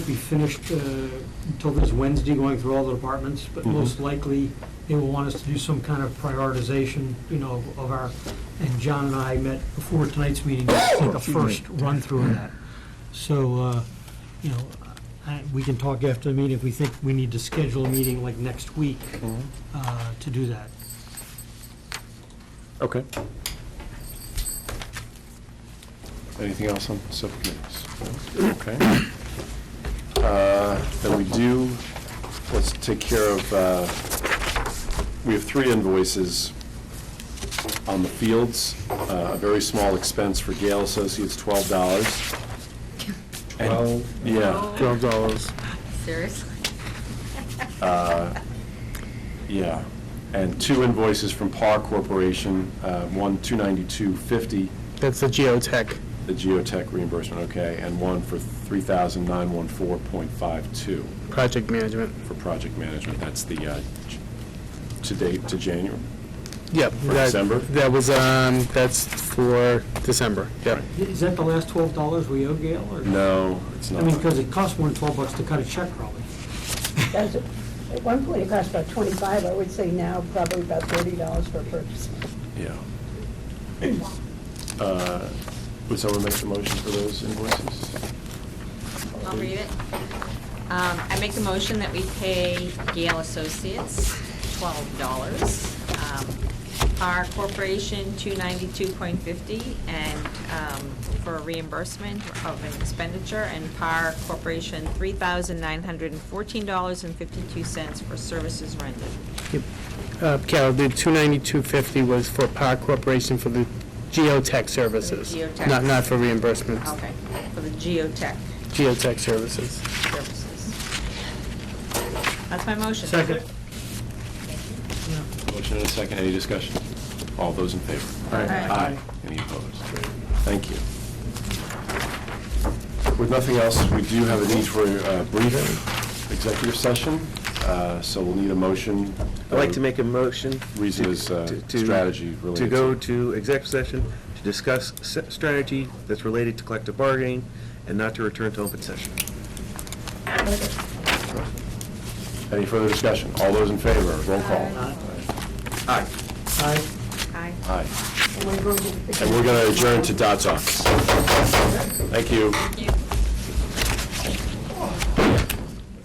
be finished uh, until this Wednesday, going through all the departments, but Mm-hmm. most likely, they will want us to do some kind of prioritization, you know, of our, and John and I met before tonight's meeting, Oh, to take a first run-through of that. So, uh, you know, I- we can talk after the meeting if we think we need to schedule a meeting like next week Mm-hmm. uh, to do that. Okay. Anything else on subcommittees? Okay. Uh, Then we do, let's take care of, uh, we have three invoices on the fields. Uh, A very small expense for Gale Associates, twelve dollars. Twelve? Yeah, Twelve dollars. Seriously? yeah. And two invoices from Par Corporation, uh, one, two ninety-two fifty, That's the geotech. the geotech reimbursement, okay, and one for 3,914.52 Project management. for project management. That's the, uh, j- to date, to January. Yep. For that- December? That was, um, that's for December, yep. Is that the last twelve dollars we owe Gail, or? No, it's I not. mean, because it costs more than twelve bucks to cut a check, probably. Does it- At one point, it cost about 25, I would say now probably about $30 for a purchase. Yeah. Uh, Would someone make the motion for those invoices? I'll read it. Um, I make the motion that we pay Gale Associates twelve dollars. Um, Our corporation, two ninety-two point fifty, and, um, for reimbursement of an expenditure, and Par Corporation, three thousand nine hundred and fourteen dollars and fifty-two cents for services rendered. Uh, Carol, the two ninety-two fifty was for Power Corporation for the geotech services. geotech. Not, not for reimbursements. Okay, for the geotech Geotech services. services. That's my motion. Second. Motion and a second, any discussion? All those in favor? Aye. Aye. Any opposed? Thank you. With nothing else, we do have a need for a brief executive session, uh, so we'll need a motion. I'd like to make a motion. Reason to- is, uh, to- to- strategy related To go to- to exec session to discuss s- strategy that's related to collective bargaining and not to return to open session. Any further discussion? All those in favor, roll call. Aye. Aye. Aye. Aye. And we're going to adjourn to Dot's office. Thank you. Thank you.